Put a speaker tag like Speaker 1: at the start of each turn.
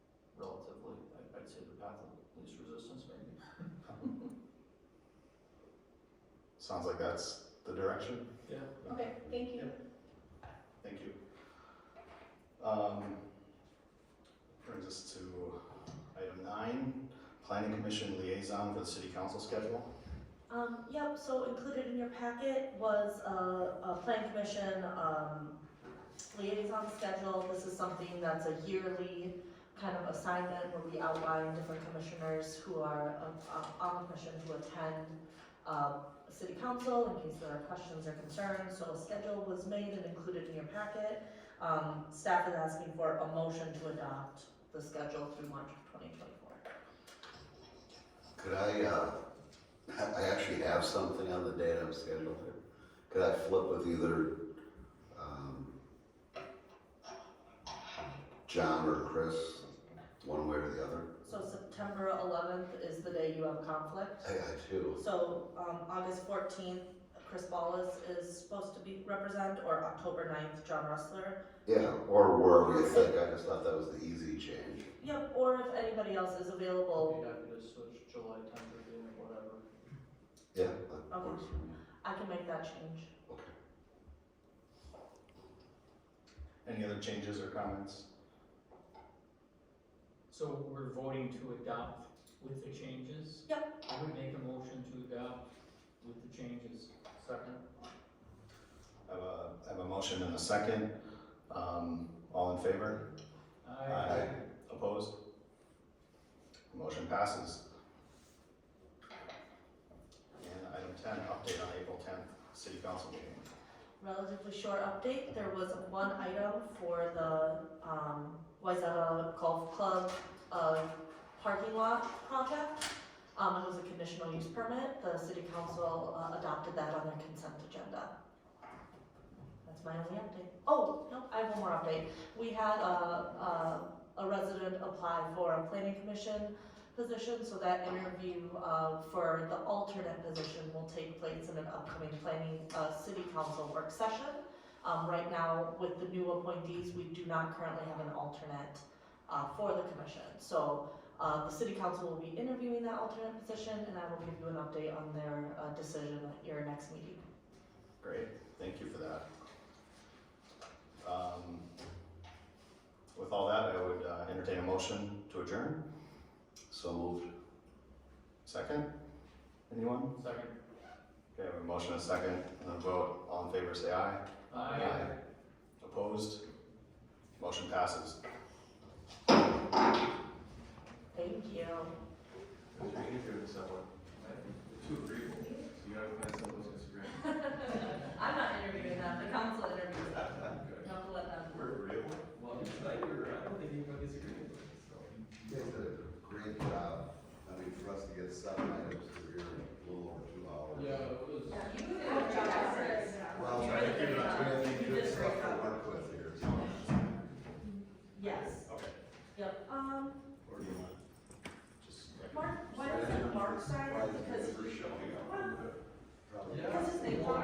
Speaker 1: least resistance, maybe.
Speaker 2: Sounds like that's the direction.
Speaker 1: Yeah.
Speaker 3: Okay, thank you.
Speaker 2: Thank you. Um, Brings us to item nine, planning commission liaison for the city council schedule.
Speaker 4: Um, yep, so included in your packet was a, a plan commission, um, liaison schedule. This is something that's a yearly kind of assignment where we outline different commissioners who are, uh, uh, on the commission who attend, uh, city council in case there are questions or concerns. So a schedule was made and included in your packet. Um, staff is asking for a motion to adopt the schedule through March of twenty twenty-four.
Speaker 5: Could I, uh, ha- I actually have something on the date I'm scheduled here. Could I flip with either, um, John or Chris, one way or the other?
Speaker 4: So September eleventh is the day you have conflict.
Speaker 5: I got two.
Speaker 4: So, um, August fourteenth, Chris Ballas is supposed to be represent, or October 9th, John Rustler.
Speaker 5: Yeah, or wherever you think. I just thought that was the easy change.
Speaker 4: Yep, or if anybody else is available,
Speaker 1: Be happy to switch July tenth or June, whatever.
Speaker 5: Yeah, that works for me.
Speaker 4: I can make that change.
Speaker 5: Okay.
Speaker 2: Any other changes or comments?
Speaker 6: So we're voting to adopt with the changes?
Speaker 4: Yep.
Speaker 6: I would make a motion to adopt with the changes. Second?
Speaker 2: I have a, I have a motion and a second. Um, All in favor? Aye. Opposed? Motion passes. And item ten, update on April tenth, city council meeting.
Speaker 4: Relatively short update, there was one item for the, um, Wayzata Golf Club, uh, parking lot project. Um, it was a conditional use permit, the city council uh, adopted that on their consent agenda. That's my only update. Oh, no, I have one more update. We had a, a, a resident apply for a planning commission position, so that interview, uh, for the alternate position will take place in an upcoming planning, uh, city council work session. Um, right now, with the new appointees, we do not currently have an alternate, uh, for the commission. So, uh, the city council will be interviewing that alternate position, and I will give you an update on their, uh, decision at your next meeting.
Speaker 2: Great, thank you for that. Um, With all that, I would uh, entertain a motion to adjourn.
Speaker 5: So moved.
Speaker 2: Second? Anyone?
Speaker 6: Second?
Speaker 2: Okay, I have a motion and a second, and then vote. All in favor, say aye.
Speaker 6: Aye.
Speaker 2: Opposed? Motion passes.
Speaker 4: Thank you. I'm not interviewing them, the council interviews them. Don't let them.
Speaker 1: Well, I don't think anybody disagrees with this, so.
Speaker 5: You guys did a great job. I mean, for us to get seven items through here in a little over two hours.
Speaker 6: Yeah, it was.
Speaker 4: You did a good job, Chris.
Speaker 5: Well,
Speaker 4: You
Speaker 5: I
Speaker 4: really
Speaker 5: think you're
Speaker 4: did a
Speaker 5: not
Speaker 4: good job.
Speaker 5: doing anything
Speaker 4: You
Speaker 5: good
Speaker 4: did a
Speaker 5: stuff
Speaker 4: great
Speaker 5: to
Speaker 4: job.
Speaker 5: work with here, so.
Speaker 4: Yes.
Speaker 5: Okay.
Speaker 4: Yep, um,
Speaker 5: Or do you want just?
Speaker 4: Mark, why is it Mark side?
Speaker 5: Why is
Speaker 4: Because
Speaker 5: it ever showing up? Probably.
Speaker 1: Yeah.
Speaker 4: Because it's the